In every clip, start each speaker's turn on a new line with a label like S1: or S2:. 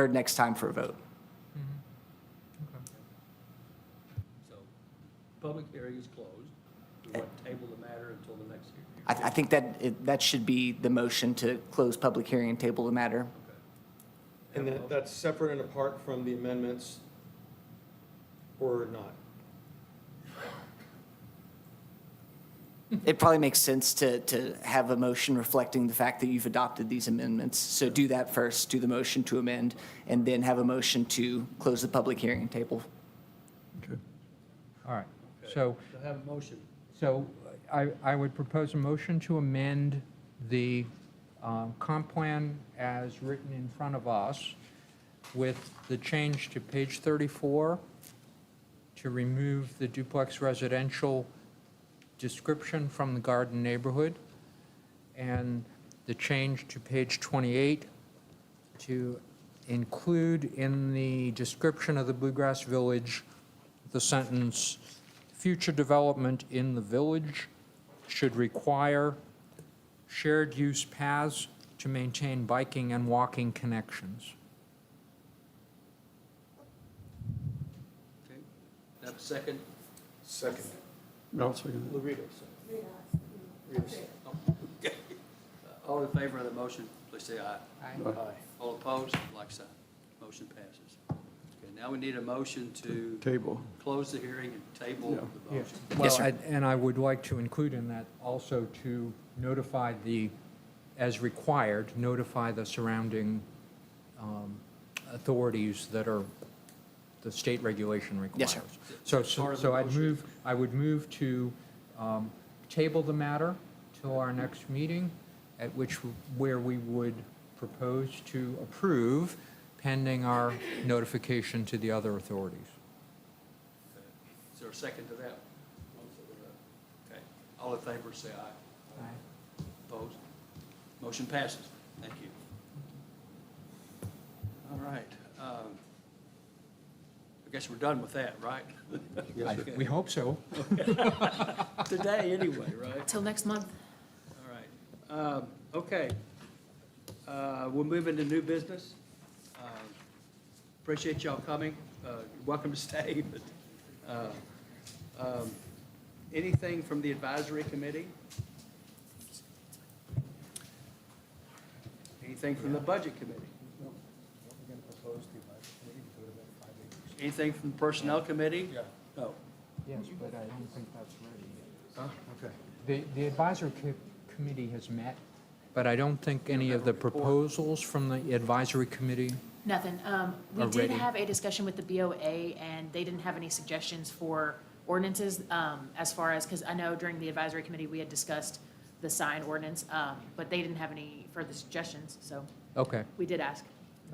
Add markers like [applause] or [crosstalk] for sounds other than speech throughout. S1: heard next time for a vote.
S2: So, public hearing is closed. We want to table the matter until the next hearing.
S1: I, I think that, it- that should be the motion to close public hearing and table the matter.
S3: And that, that's separate and apart from the amendments or not?
S4: Mm-hmm.
S1: It probably makes sense to, to have a motion reflecting the fact that you've adopted these amendments. So do that first, do the motion to amend, and then have a motion to close the public hearing and table.
S5: All right, so,
S2: So have a motion.
S5: so I, I would propose a motion to amend the um, comp plan as written in front of us with the change to page 34 to remove the duplex residential description from the garden neighborhood and the change to page 28 to include in the description of the Bluegrass Village the sentence, "Future development in the village should require shared-use paths to maintain biking and walking connections."
S2: Okay. Have a second?
S3: Second.
S6: I'll second
S3: Luritos.
S2: Okay. Uh, All in favor of the motion, please say aye.
S6: Aye.
S2: All opposed, like sign. Motion passes. Okay, now we need a motion to
S6: that. Table.
S2: close the hearing and table the motion.
S5: Well,
S1: sir.
S5: I- and I would like to include in that also to notify the, as required, notify the surrounding um, authorities that are, the state regulation
S1: Yes,
S5: requires.
S1: sir.
S5: So,
S2: Part
S5: so
S2: of the
S5: so I'd
S2: motion.
S5: move, I would move to um, table the matter till our next meeting, at which, where we would propose to approve pending our notification to the other authorities.
S2: Is there a second to that? Okay. All in favor, say aye. Opposed? Motion passes. Thank you. All right. um, I guess we're done with that, right?
S5: I- We hope so.
S2: Today, anyway, right?
S4: Till next month.
S2: All right. Um, Okay. Uh, We'll move into new business. Uh, Appreciate y'all coming. Uh, you're Welcome to [laughs] stay. but, uh, um, Anything from the advisory committee? Anything from the budget committee? Anything from the personnel committee? Yeah. No.
S5: Yes, but I don't think that's ready yet.
S3: Okay.
S5: The, the advisory co- committee has met, but I don't think any of the proposals from the advisory committee,
S4: Nothing. Um, we did
S5: Already.
S4: have a discussion with the BOA and they didn't have any suggestions for ordinances, um, as far as, because I know during the advisory committee, we had discussed the sign ordinance, um, but they didn't have any further suggestions, so
S5: okay,
S4: we did ask.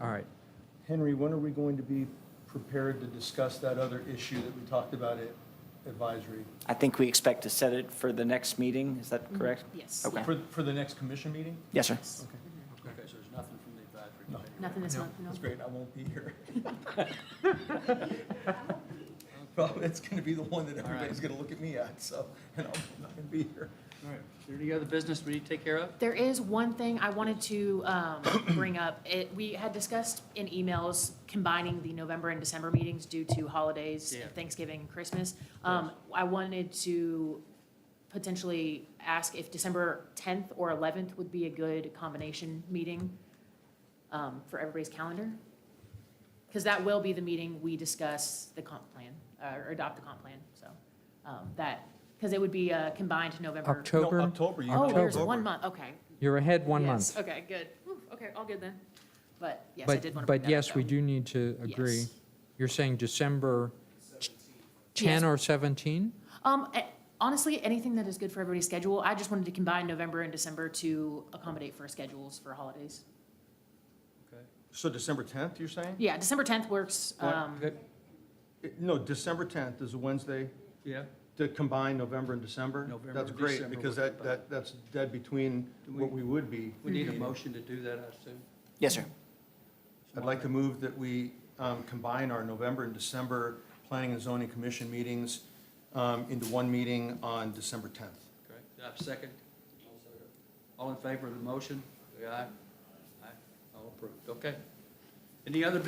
S5: all right.
S3: Henry, when are we going to be prepared to discuss that other issue that we talked about at advisory?
S1: I think we expect to set it for the next meeting, is that correct?
S4: Yes.
S1: Okay.
S3: For, for the next commission meeting?
S4: Mm-hmm.
S1: Yes, sir.
S4: Yes. Mm-hmm.
S3: Okay,
S2: Okay, so there's nothing from the advisory
S3: No.
S2: committee.
S4: Nothing this
S5: No,
S4: month, no.
S3: that's great, I won't be
S4: [laughs]
S3: here. [laughs] Well, it's gonna be the one that
S2: right.
S3: everybody's gonna look at me at, so, and I'm not gonna be here.
S2: All right. Is there any other business we need to take care of?
S4: There is one thing I wanted to um, [coughs] bring up. It, we had discussed in emails combining the November and December meetings due to holidays,
S2: Yeah.
S4: Thanksgiving, and Christmas. Um, I wanted to potentially ask if December 10th or 11th would be a good combination meeting um, for everybody's calendar. Because that will be the meeting we discuss the comp plan, uh, or adopt the comp plan, so um, that, because it would be a combined November.
S3: No,
S5: October,
S3: October, you.
S4: Oh,
S3: have
S4: there's
S3: October.
S4: one month, okay.
S5: you're ahead one
S4: Yes,
S5: month.
S4: Okay, good. Whew, Okay, all good then. But yes, I
S5: But,
S4: did want to bring that
S5: but
S4: up,
S5: yes, we
S4: though.
S5: do need to agree.
S4: Yes.
S5: You're saying December 10
S4: Yes.
S5: or 17?
S4: Um, eh, honestly, anything that is good for everybody's schedule, I just wanted to combine November and December to accommodate for schedules for holidays.
S2: Okay.
S3: So December tenth, you're saying?
S4: Yeah, December tenth works,
S3: What?
S4: um,
S3: It- No, December 10th is a Wednesday
S2: Yeah,
S3: to combine November and December.
S2: November
S3: That's
S2: and
S3: great,
S2: December
S3: because
S2: would
S3: that, that, that's dead between what we would be.
S2: we need a motion to do that, I assume.
S1: Yes, sir.
S3: I'd like to move that we um, combine our November and December Planning and Zoning Commission meetings um, into one meeting on December 10th.
S2: Okay, do I have a second? All in favor of the motion, say aye. Aye, all approved, okay. Any other